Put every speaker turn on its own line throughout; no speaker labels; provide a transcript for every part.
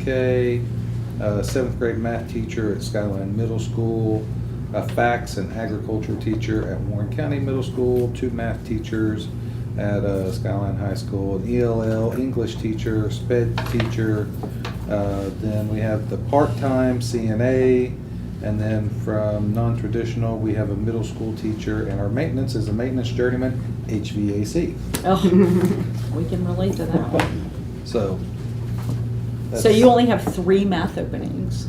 LFK, uh, seventh grade math teacher at Skyline Middle School, a fax and agriculture teacher at Warren County Middle School, two math teachers at uh, Skyline High School, an ELL English teacher, sped teacher. Uh, Then we have the part-time CNA, and then from non-traditional, we have a middle school teacher, and our maintenance is a maintenance journeyman, HVAC.
Oh, we can relate to that one.
So.
So you only have three math openings,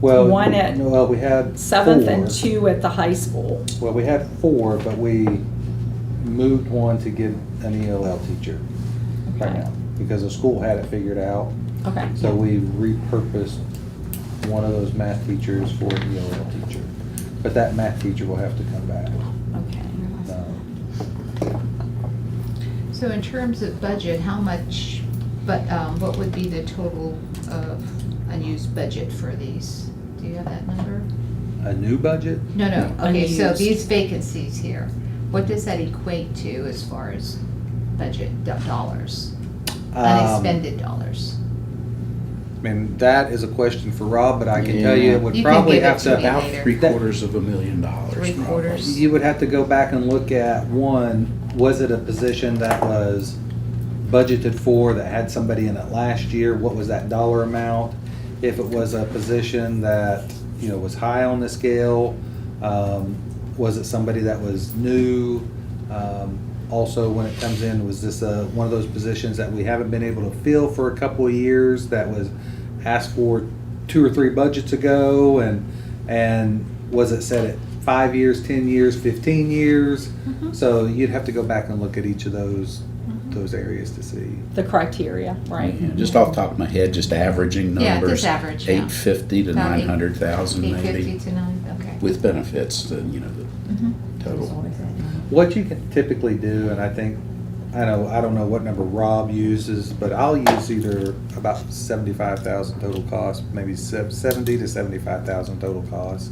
Well,
one at
Well, we had.
seventh and
four.
two at the high school.
Well, we had four, but we moved one to get an ELL teacher right
Okay.
now, because the school had it figured out.
Okay,
So we repurposed one of those math teachers for an ELL teacher. But that math teacher will have to come back.
okay.
Um,
So in terms of budget, how much, but, um, what would be the total of unused budget for these? Do you have that number?
A new budget?
No, no, okay, so
Unused.
these vacancies here, what does that equate to as far as budget do- dollars?
Um,
Unexpended dollars?
I mean, that is a question for Rob, but I can tell you it would
You can
probably
give it
have
to me
to.
later.
About three
That-
quarters of a million dollars.
Three
probably.
quarters.
You would have to go back and look at, one, was it a position that was budgeted for, that had somebody in it last year? What was that dollar amount? If it was a position that, you know, was high on the scale, um, was it somebody that was new? Um, Also, when it comes in, was this a, one of those positions that we haven't been able to fill for a couple of years that was asked for two or three budgets ago and, and was it set at five years, ten years, fifteen years? So you'd have to go back and look at each of those, those areas to see.
The criteria, right?
Yeah, Just off the top of my head, just averaging numbers.
Yeah, just average, yeah.
Eight fifty to
About eight-
nine hundred thousand
Eight fifty
maybe,
to nine, okay.
with benefits, the, you know, the
Mhm.
total.
What you can typically do, and I think, I know, I don't know what number Rob uses, but I'll use either about seventy-five thousand total cost, maybe se- seventy to seventy-five thousand total cost.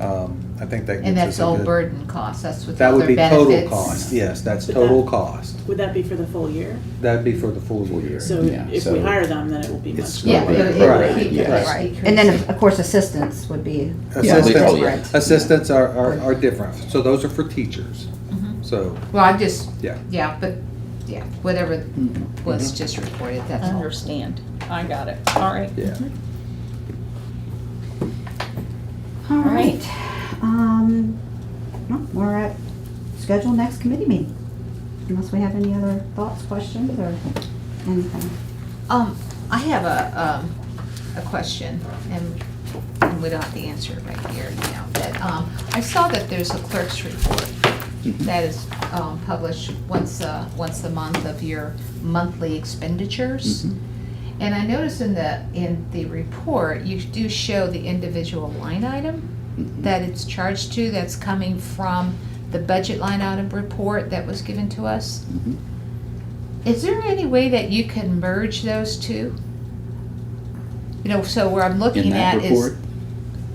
Um, I think that
And
gives us
that's
a
all
good.
burden costs, that's with
That would
other
be
benefits?
total cost, yes, that's
But
total
that-
cost.
Would that be for the full year?
That'd be for the full year.
So
Yeah,
if we
so
hire them, then it will be
it's
much.
Yeah, it
Right,
would-
right,
it would be-
yes.
right.
And then, of- of course, assistants would be.
Yeah,
much
we-
Assistants-
oh, yeah.
different.
Assistants are, are, are different, so those are for teachers,
Mhm.
so,
Well, I just,
yeah.
yeah, but, yeah, whatever was just reported, that's all.
Understand. I got it. All right.
Yeah.
All right. Um, well, We're at scheduled next committee meeting, unless we have any other thoughts, questions, or anything.
Um, I have a, um, a question, and, and we don't have to answer it right here now, but, um, I saw that there's a clerk's report that is, um, published once, uh, once a month of your monthly expenditures.
Mhm.
And I noticed in the, in the report, you do show the individual line item that it's charged to, that's coming from the budget line item report that was given to us.
Mhm. Mm-hmm.
Is there any way that you can merge those two? You know, so where I'm looking
In that
at
report,
is,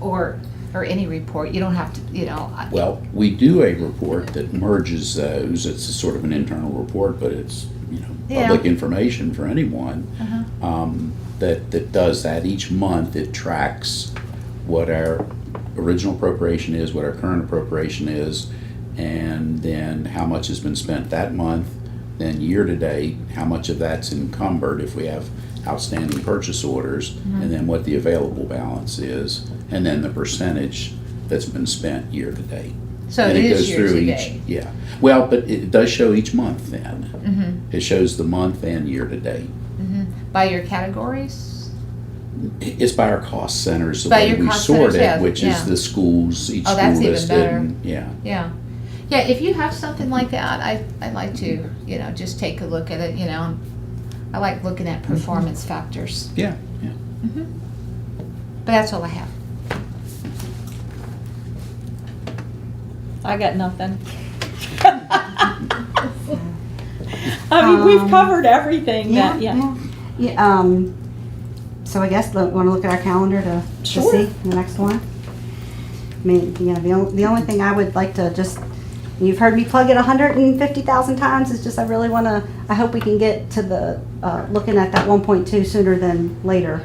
or, or any report, you don't have to, you know, I-
well, we do a report that merges those. It's a sort of an internal report, but it's, you know,
Yeah.
public information for anyone.
Uh-huh.
um, that, that does that. Each month, it tracks what our original appropriation is, what our current appropriation is, and then how much has been spent that month, then year-to-date, how much of that's encumbered if we have outstanding purchase orders,
Mm-hmm.
and then what the available balance is, and then the percentage that's been spent year-to-date.
so it
And
is
goes
year
through
to
each-
date.
Yeah, well, but it does show each month then.
Mhm.
It shows the month and year-to-date.
mm-hmm. By your categories?
It's by our cost centers, the
By
way
your
we
cost
sort
centers,
it,
yeah,
which
yeah.
is the schools, each
Oh,
school
that's even
listed,
better.
and- yeah.
Yeah. Yeah, if you have something like that, I, I'd like to, you know, just take a look at it, you know. I like looking at performance factors,
Mm-hmm.
Mm-hmm.
Yeah, yeah.
but that's all I have.
I got nothing. I mean, we've
Um,
covered everything that, yeah.
Yeah, um, so I guess, want to look at our calendar to, to
Sure.
see the next one? I mean, you know, the only, the only thing I would like to just And you've heard me plug it hundred and fifty thousand times, it's just I really wanna, I hope we can get to the, uh, looking at that one point two sooner than later.